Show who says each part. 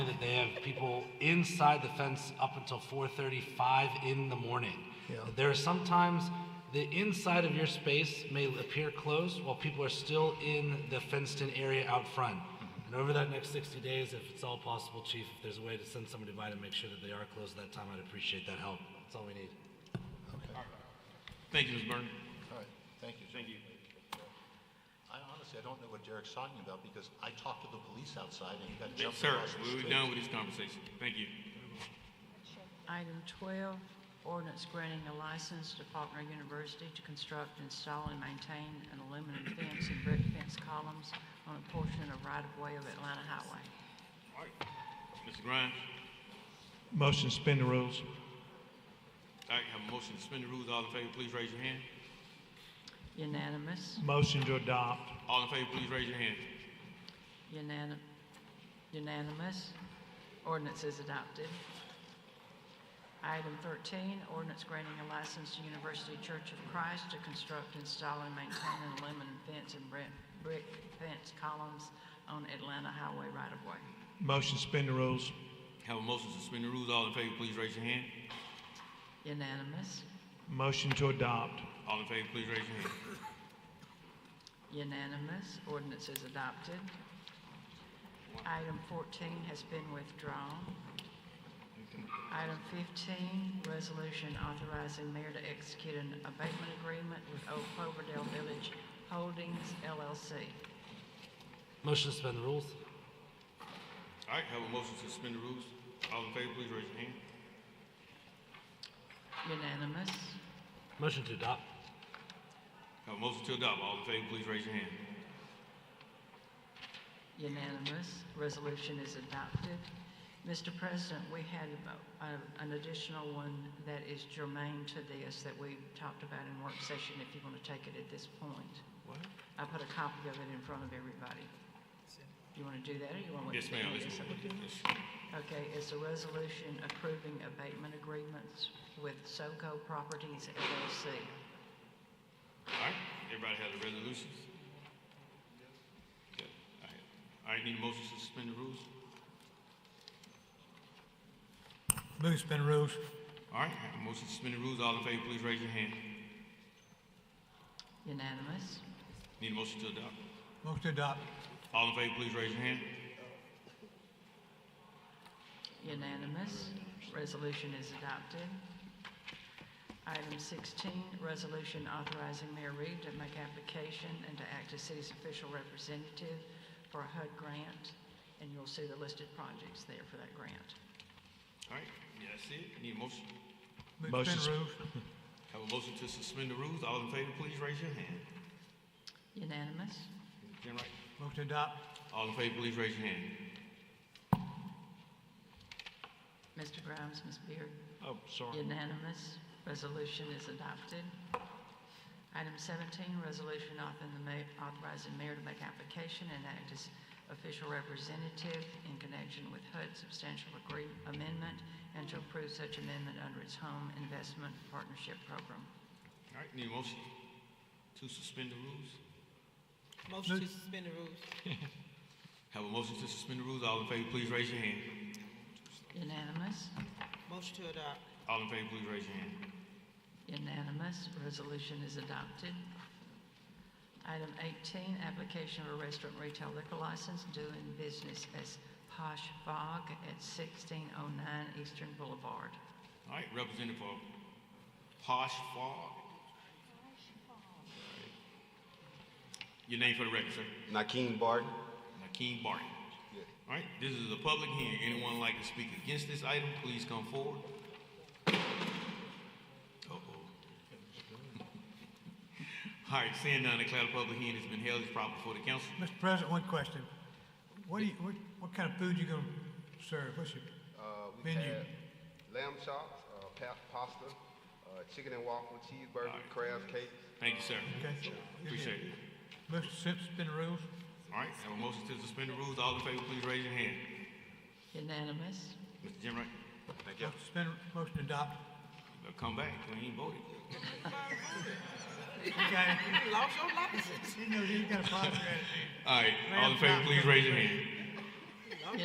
Speaker 1: that they have people inside the fence up until 4:35 in the morning.
Speaker 2: Yeah.
Speaker 1: There are sometimes the inside of your space may appear closed while people are still in the fenced-in area out front. And over that next 60 days, if it's all possible, chief, if there's a way to send somebody by to make sure that they are closed that time, I'd appreciate that help. That's all we need.
Speaker 3: Thank you, Ms. Burton.
Speaker 2: All right, thank you. Thank you. I honestly, I don't know what Derek's talking about because I talked to the police outside and he got jumped
Speaker 3: Sir,
Speaker 2: across the
Speaker 3: we're
Speaker 2: street.
Speaker 3: done with this conversation. Thank you.
Speaker 4: Item 12, ordinance granting a license to Faulkner University to construct, install, and maintain an aluminum fence and brick fence columns on a portion of right-of-way of Atlanta Highway.
Speaker 3: Mr. Grimes,
Speaker 5: Motion to suspend the rules.
Speaker 3: all right, have a motion to suspend the rules. All in favor, please raise your hand.
Speaker 4: Unanimous,
Speaker 5: Motion to adopt.
Speaker 3: All in favor, please raise your hand.
Speaker 4: unanim- unanimous, ordinance is adopted. Item 13, ordinance granting a license to University Church of Christ to construct, install, and maintain an aluminum fence and brick brick fence columns on Atlanta Highway right-of-way.
Speaker 5: Motion to suspend the rules.
Speaker 3: Have a motion to suspend the rules. All in favor, please raise your hand.
Speaker 4: Unanimous,
Speaker 5: Motion to adopt.
Speaker 3: All in favor, please raise your hand.
Speaker 4: unanimous, ordinance is adopted. Item 14 has been withdrawn. Item 15, resolution authorizing mayor to execute an abatement agreement with Old Cloverdale Village Holdings LLC.
Speaker 1: Motion to suspend the rules?
Speaker 3: All right, have a motion to suspend the rules. All in favor, please raise your hand.
Speaker 4: Unanimous,
Speaker 1: Motion to adopt?
Speaker 3: Have a motion to adopt. All in favor, please raise your hand.
Speaker 4: unanimous, resolution is adopted. Mr. President, we had uh, an additional one that is germane to this that we talked about in work session, if you want to take it at this point.
Speaker 3: What?
Speaker 4: I put a copy of it in front of everybody. You want to do that, or you want to wait?
Speaker 3: Yes,
Speaker 4: till the
Speaker 3: ma'am.
Speaker 4: end?
Speaker 3: Yes, ma'am. Yes.
Speaker 4: Okay, it's a resolution approving abatement agreements with SoCo Properties LLC.
Speaker 3: All right, everybody has the resolutions? Okay, All right. All right, need a motion to suspend the rules?
Speaker 6: Move suspend rules.
Speaker 3: All right, have a motion to suspend the rules. All in favor, please raise your hand.
Speaker 4: Unanimous,
Speaker 3: Need a motion to adopt.
Speaker 6: Motion to adopt.
Speaker 3: All in favor, please raise your hand.
Speaker 4: unanimous, resolution is adopted. Item 16, resolution authorizing Mayor Reed to make application and to act as city's official representative for a HUD grant, and you'll see the listed projects there for that grant.
Speaker 3: All right, yeah, that's it. Need a motion.
Speaker 6: Move
Speaker 5: Motion
Speaker 6: suspend
Speaker 5: to
Speaker 6: rules.
Speaker 3: Have a motion to suspend the rules. All in favor, please raise your hand.
Speaker 4: Unanimous,
Speaker 3: Jen Wright.
Speaker 6: Motion to adopt.
Speaker 3: All in favor, please raise your hand.
Speaker 4: Mr. Grimes, Ms. Beard.
Speaker 5: Oh, sorry.
Speaker 4: Unanimous. Resolution is adopted. Item 17, resolution authoring the ma- authorizing mayor to make application and act as official representative in connection with HUD substantial agree- amendment and to approve such amendment under its home investment partnership program.
Speaker 3: All right, need a motion to suspend the rules.
Speaker 7: Motion to suspend the rules.
Speaker 3: Have a motion to suspend the rules. All in favor, please raise your hand.
Speaker 4: Unanimous.
Speaker 7: Motion to adopt.
Speaker 3: All in favor, please raise your hand.
Speaker 4: Unanimous. Resolution is adopted. Item 18, application of a restaurant retail liquor license doing business as Posh Fog at 1609 Eastern Boulevard.
Speaker 3: All right, Representative for Posh Fogg. Your name for the record, sir.
Speaker 2: Nakeem Barton?
Speaker 3: Nakeem Barton. All right, this is a public hearing. Anyone like to speak against this item, please come forward. Uh-oh. All right, seeing none, declare the public hearing has been held. It's proper before the council.
Speaker 6: Mr. President, one question. What do you, what, what kind of food you gonna serve? What's your
Speaker 8: Uh, we
Speaker 6: Menu.
Speaker 8: had lamb chops, uh, pa- pasta, uh, chicken and waffle, cheeseburger,
Speaker 3: Alright.
Speaker 8: crab cakes.
Speaker 3: Thank you, sir.
Speaker 6: Okay.
Speaker 3: Appreciate it.
Speaker 6: Motion to suspend rules.
Speaker 3: All right, have a motion to suspend the rules. All in favor, please raise your hand.
Speaker 4: Unanimous.
Speaker 3: Mr. Jim Wright,
Speaker 6: Motion to suspend, motion to adopt.
Speaker 3: uh, come back. We ain't voted.
Speaker 6: Okay.
Speaker 7: You lost your license.
Speaker 6: He knows he's got a problem.
Speaker 3: All right, all in favor, please raise your hand.